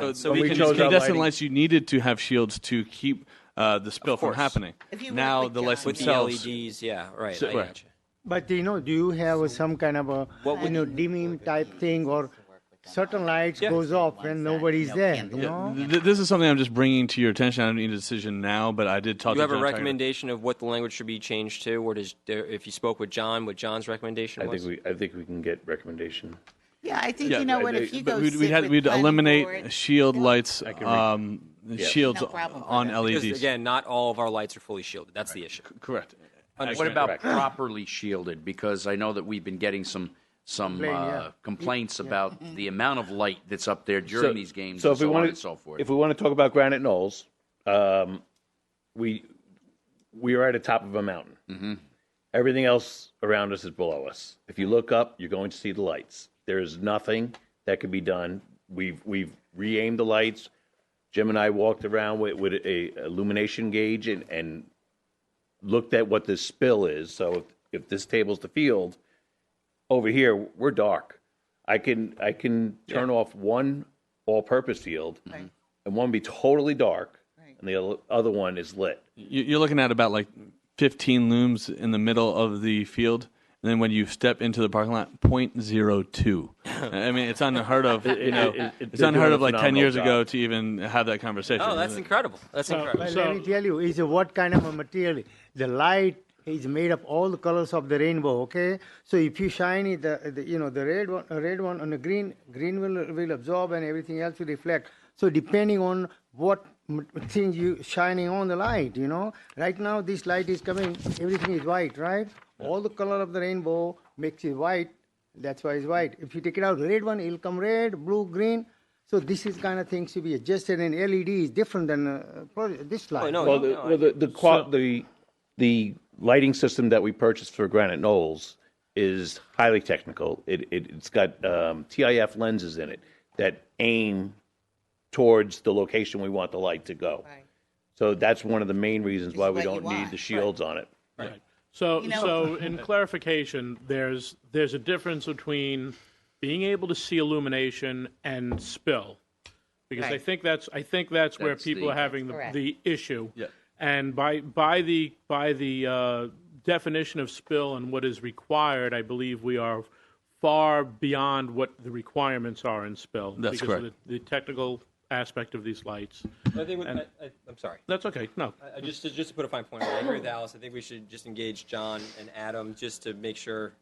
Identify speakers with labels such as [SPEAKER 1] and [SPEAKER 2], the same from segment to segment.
[SPEAKER 1] So,
[SPEAKER 2] So
[SPEAKER 1] we
[SPEAKER 2] we
[SPEAKER 1] can
[SPEAKER 2] chose
[SPEAKER 1] just
[SPEAKER 2] our
[SPEAKER 1] make this
[SPEAKER 2] lighting.
[SPEAKER 1] unless you needed to have shields to keep uh, the spill from
[SPEAKER 2] course.
[SPEAKER 1] happening.
[SPEAKER 3] If you
[SPEAKER 1] Now
[SPEAKER 3] want the
[SPEAKER 1] the lights
[SPEAKER 3] gun.
[SPEAKER 2] With the
[SPEAKER 1] themselves.
[SPEAKER 2] LEDs, yeah, right.
[SPEAKER 1] So-
[SPEAKER 2] I
[SPEAKER 1] right.
[SPEAKER 2] gotcha.
[SPEAKER 4] But you know, do you have some kind of a, you know, dimming type thing or certain lights
[SPEAKER 2] Yeah.
[SPEAKER 4] goes off when nobody's there, you know?
[SPEAKER 1] Th- This is something I'm just bringing to your attention. I don't need a decision now, but I did talk
[SPEAKER 2] You
[SPEAKER 1] to
[SPEAKER 2] have a
[SPEAKER 1] John Tiger.
[SPEAKER 2] recommendation of what the language should be changed to, or does there- if you spoke with John, what John's recommendation
[SPEAKER 5] I
[SPEAKER 2] was?
[SPEAKER 5] think we, I think we can get recommendation.
[SPEAKER 3] Yeah, I think,
[SPEAKER 1] Yeah,
[SPEAKER 3] you know
[SPEAKER 5] but
[SPEAKER 3] what,
[SPEAKER 5] they-
[SPEAKER 3] if you
[SPEAKER 1] But
[SPEAKER 3] go
[SPEAKER 1] we'd, we'd,
[SPEAKER 3] sit
[SPEAKER 1] had,
[SPEAKER 3] with
[SPEAKER 1] we'd
[SPEAKER 3] planning
[SPEAKER 1] eliminate
[SPEAKER 3] board-
[SPEAKER 1] shield lights,
[SPEAKER 5] can read.
[SPEAKER 1] um, shields
[SPEAKER 3] No problem with
[SPEAKER 1] on E
[SPEAKER 3] that.
[SPEAKER 2] Because,
[SPEAKER 1] LEDs.
[SPEAKER 2] again, not all of our lights are fully shielded. That's the issue.
[SPEAKER 1] Correct.
[SPEAKER 6] What
[SPEAKER 1] Excellent.
[SPEAKER 6] about properly shielded? Because I know that we've been getting some, some
[SPEAKER 4] Complain, yeah.
[SPEAKER 6] uh, complaints about the amount of light that's up there during these games and
[SPEAKER 5] if we
[SPEAKER 6] so on
[SPEAKER 5] wanna-
[SPEAKER 6] and so forth.
[SPEAKER 5] If we want to talk about Granite Knolls, um, we we are at the top of a mountain. Everything else around us is below us. If you look up, you're going to see the lights. There is nothing that can be done. We've we've re-aimed the lights. Jim and I walked around with, with a illumination gauge and, and looked at what this spill is. So if, if this table's the field, over here we're dark. I can I can turn off one all-purpose field, and one be totally dark, and the other- other one is lit.
[SPEAKER 1] You- You're looking at about like 15 looms in the middle of the field. And then when you step into the parking lot, 0.02. I mean, it's unheard of. You know,
[SPEAKER 5] it- it-
[SPEAKER 1] it's
[SPEAKER 5] they're
[SPEAKER 1] unheard
[SPEAKER 5] doing
[SPEAKER 1] of
[SPEAKER 5] a
[SPEAKER 1] like 10
[SPEAKER 5] phenomenal
[SPEAKER 1] years ago
[SPEAKER 5] job.
[SPEAKER 1] to even have that conversation.
[SPEAKER 2] Oh, that's incredible. That's
[SPEAKER 4] But
[SPEAKER 2] incredible.
[SPEAKER 4] let me tell you, is what kind of a material? The light is made of all the colors of the rainbow. Okay, so if you shine it, the, the you know the red one, uh, red one, and the green, green will will absorb, and everything else will reflect. So depending on what m- thing you shining on the light, you know. Right now, this light is coming. Everything is white, right? All the color of the rainbow makes it white. That's why it's white. If you take it out, red one, it'll come red, blue, green. So this is kind of things to be adjusted, and LED is different than uh, pro- this light.
[SPEAKER 3] Oh,
[SPEAKER 2] no,
[SPEAKER 5] Well, the, well, the, the, qua- the the lighting system that we purchased for Granite Knolls is highly technical. It, it it's got um, TIF lenses in it that aim towards the location we want the light to go.
[SPEAKER 3] Right.
[SPEAKER 5] So that's one of the main reasons why we
[SPEAKER 3] what you
[SPEAKER 5] don't need
[SPEAKER 3] want.
[SPEAKER 5] the shields on it.
[SPEAKER 7] So,
[SPEAKER 3] You know-
[SPEAKER 7] so in clarification, there's there's a difference between being able to see illumination and spill, because I
[SPEAKER 3] Right.
[SPEAKER 7] think that's I think that's, where
[SPEAKER 6] That's
[SPEAKER 7] people
[SPEAKER 6] the-
[SPEAKER 7] are having the,
[SPEAKER 3] Correct.
[SPEAKER 7] the issue.
[SPEAKER 1] Yeah.
[SPEAKER 7] And by by the by the uh, definition of spill and what is required, I believe we are far beyond what the requirements are in spill.
[SPEAKER 1] That's
[SPEAKER 7] because
[SPEAKER 1] correct.
[SPEAKER 7] Of the, the technical aspect of these lights.
[SPEAKER 2] I think, we- I, I, I'm sorry.
[SPEAKER 7] That's okay. No,
[SPEAKER 2] I- I just, to- just to put a fine point, on it, I agree with Alice. I think we should just engage John and Adam just to make sure.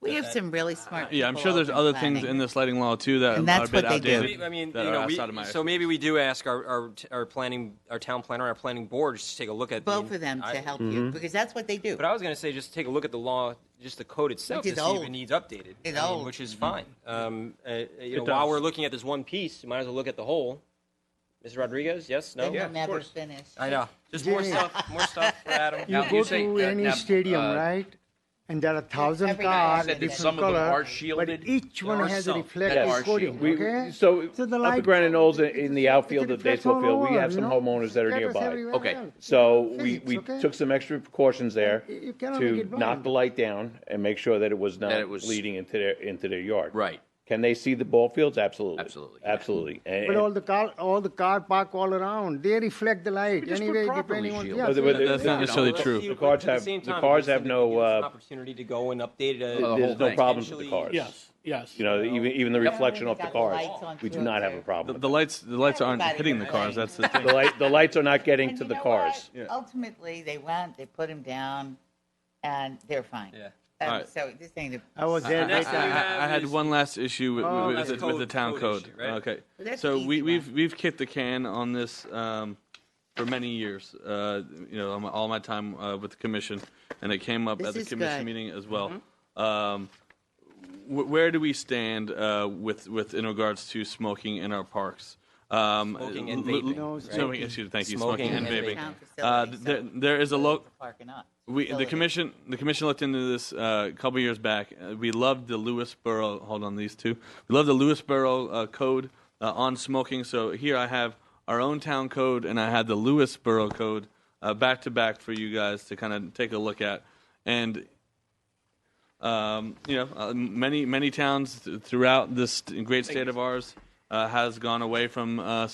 [SPEAKER 3] We have some really smart.
[SPEAKER 1] Yeah, I'm
[SPEAKER 3] people
[SPEAKER 1] sure there's
[SPEAKER 3] out
[SPEAKER 1] other
[SPEAKER 3] planning.
[SPEAKER 1] things in this lighting law too that
[SPEAKER 3] And
[SPEAKER 1] are a
[SPEAKER 3] that's
[SPEAKER 1] bit
[SPEAKER 3] what they do.
[SPEAKER 1] outdated.
[SPEAKER 2] We- I mean,
[SPEAKER 1] that
[SPEAKER 2] you
[SPEAKER 1] are
[SPEAKER 2] know, we,
[SPEAKER 1] outside of my
[SPEAKER 2] so maybe we do ask our, our, our planning, our town planner, our planning board, just to take a look at. the-
[SPEAKER 3] Both of them to
[SPEAKER 2] I-
[SPEAKER 3] help
[SPEAKER 5] Mm-hmm.
[SPEAKER 3] you, because that's what they do.
[SPEAKER 2] But I was going to say, just take a look at the law, just the code itself,
[SPEAKER 3] Which
[SPEAKER 2] to
[SPEAKER 3] is
[SPEAKER 2] see if
[SPEAKER 3] old.
[SPEAKER 2] it needs updated.
[SPEAKER 3] It's
[SPEAKER 2] I mean,
[SPEAKER 3] old.
[SPEAKER 2] Which is fine. Um, uh, you know, while
[SPEAKER 7] does.
[SPEAKER 2] we're looking at this one piece, you might as well look at the whole. Mr. Rodriguez, yes, no?
[SPEAKER 3] They will never finish.
[SPEAKER 2] I know. Just more
[SPEAKER 4] Jimmy.
[SPEAKER 2] stuff, more stuff for Adam.
[SPEAKER 4] You
[SPEAKER 6] Now,
[SPEAKER 4] go
[SPEAKER 6] you say,
[SPEAKER 4] to
[SPEAKER 6] uh,
[SPEAKER 4] any
[SPEAKER 6] now,
[SPEAKER 4] stadium,
[SPEAKER 6] uh,
[SPEAKER 4] right? And there are thousand
[SPEAKER 3] Everybody
[SPEAKER 4] cars,
[SPEAKER 3] said that
[SPEAKER 4] different
[SPEAKER 6] some of them
[SPEAKER 4] color,
[SPEAKER 6] are
[SPEAKER 4] but
[SPEAKER 6] shielded.
[SPEAKER 4] each one
[SPEAKER 2] are
[SPEAKER 4] has a
[SPEAKER 2] some
[SPEAKER 6] that are
[SPEAKER 4] reflective coating.
[SPEAKER 6] shielded.
[SPEAKER 5] We-
[SPEAKER 4] okay,
[SPEAKER 5] So,
[SPEAKER 4] the
[SPEAKER 5] up
[SPEAKER 4] light-
[SPEAKER 5] at Granite Knolls in, in the outfield
[SPEAKER 4] it
[SPEAKER 5] of the
[SPEAKER 4] reflects all
[SPEAKER 5] baseball field, we
[SPEAKER 4] over,
[SPEAKER 5] have
[SPEAKER 4] you
[SPEAKER 5] some
[SPEAKER 4] know?
[SPEAKER 5] homeowners that are
[SPEAKER 4] Reflects
[SPEAKER 5] nearby.
[SPEAKER 4] everywhere
[SPEAKER 6] Okay.
[SPEAKER 4] else.
[SPEAKER 5] So
[SPEAKER 4] Physics,
[SPEAKER 5] we, we
[SPEAKER 4] okay?
[SPEAKER 5] took some extra precautions there
[SPEAKER 4] You- you cannot make
[SPEAKER 5] to
[SPEAKER 4] it
[SPEAKER 5] knock
[SPEAKER 4] blind.
[SPEAKER 5] the light down and make sure that it was
[SPEAKER 6] That
[SPEAKER 5] not
[SPEAKER 6] it was-
[SPEAKER 5] leading into their, into their yard.
[SPEAKER 6] Right.
[SPEAKER 5] Can they see the ball fields? Absolutely.
[SPEAKER 6] Absolutely.
[SPEAKER 5] Absolutely. And-
[SPEAKER 4] But all the car, all the car park all around, they reflect the light
[SPEAKER 6] just put
[SPEAKER 4] anyway,
[SPEAKER 6] properly
[SPEAKER 4] depending on.
[SPEAKER 6] shielded.
[SPEAKER 4] yeah,
[SPEAKER 5] But the-
[SPEAKER 4] so
[SPEAKER 5] but the-
[SPEAKER 1] That's not
[SPEAKER 5] you know,
[SPEAKER 1] necessarily
[SPEAKER 5] the-
[SPEAKER 1] true.
[SPEAKER 5] The cards have, the cards have no, uh,
[SPEAKER 2] Opportunity to go and update it. uh,
[SPEAKER 6] the whole
[SPEAKER 5] there's no
[SPEAKER 6] thing.
[SPEAKER 5] problems with the
[SPEAKER 2] Potentially-
[SPEAKER 5] cards.
[SPEAKER 7] yes, yes.
[SPEAKER 5] You know, even, even the reflection
[SPEAKER 3] we
[SPEAKER 5] off the
[SPEAKER 3] got the
[SPEAKER 5] cars,
[SPEAKER 3] lights on
[SPEAKER 5] we do
[SPEAKER 3] through
[SPEAKER 5] not
[SPEAKER 3] there.
[SPEAKER 5] have a problem.
[SPEAKER 1] The,
[SPEAKER 5] with
[SPEAKER 1] the
[SPEAKER 5] that.
[SPEAKER 1] lights, the lights aren't
[SPEAKER 3] Everybody
[SPEAKER 1] hitting the
[SPEAKER 3] was
[SPEAKER 1] cars.
[SPEAKER 3] like-
[SPEAKER 1] That's the thing.
[SPEAKER 5] The light, the lights are not getting
[SPEAKER 3] And
[SPEAKER 5] to
[SPEAKER 3] you
[SPEAKER 5] the
[SPEAKER 3] know
[SPEAKER 5] cars.
[SPEAKER 3] what? Ultimately, they went, they put him down, and they're fine.
[SPEAKER 2] Yeah.
[SPEAKER 3] Um,
[SPEAKER 1] Alright.
[SPEAKER 3] So this ain't a.
[SPEAKER 4] I was there.
[SPEAKER 2] next
[SPEAKER 4] that
[SPEAKER 2] thing
[SPEAKER 1] I,
[SPEAKER 2] you
[SPEAKER 4] time.
[SPEAKER 2] have
[SPEAKER 1] I had
[SPEAKER 2] is-
[SPEAKER 1] one last issue with, with,
[SPEAKER 2] that's
[SPEAKER 1] with the-
[SPEAKER 2] code-
[SPEAKER 1] with the town
[SPEAKER 2] code
[SPEAKER 1] code.
[SPEAKER 2] issue, right?
[SPEAKER 1] Okay,
[SPEAKER 3] that's
[SPEAKER 1] so
[SPEAKER 3] easy
[SPEAKER 1] we,
[SPEAKER 3] one.
[SPEAKER 1] we've we've kicked the can on this um, for many years. Uh, you know, on my- all my time uh, with the commission, and it came up
[SPEAKER 3] This
[SPEAKER 1] at the
[SPEAKER 3] is
[SPEAKER 1] commission
[SPEAKER 3] good. Mm-hmm.
[SPEAKER 1] meeting as well. Um, wh- where do we stand uh, with with in regards to smoking in our parks? Um,
[SPEAKER 2] Smoking and
[SPEAKER 1] l- l-
[SPEAKER 2] vaping,
[SPEAKER 4] No, right?
[SPEAKER 1] smoking, excuse me, thank you,
[SPEAKER 2] Smoking
[SPEAKER 1] smoking,
[SPEAKER 2] and
[SPEAKER 1] and vaping.
[SPEAKER 3] Town
[SPEAKER 1] Uh,
[SPEAKER 3] facility,
[SPEAKER 1] th-
[SPEAKER 3] so
[SPEAKER 1] there, there is a local.
[SPEAKER 3] Park or not.
[SPEAKER 1] We, the
[SPEAKER 3] Facility.
[SPEAKER 1] commission, the commission looked into this uh, a couple years back. Uh, we loved the Lewisboro. Hold on, these two. We love the Lewisboro uh, code uh, on smoking. So here I have our own town code, and I had the Lewisboro code uh, back to back for you guys to kind of take a look at. And um, you know, uh, many many towns th- throughout this st- great state of ours uh, has gone away from uh,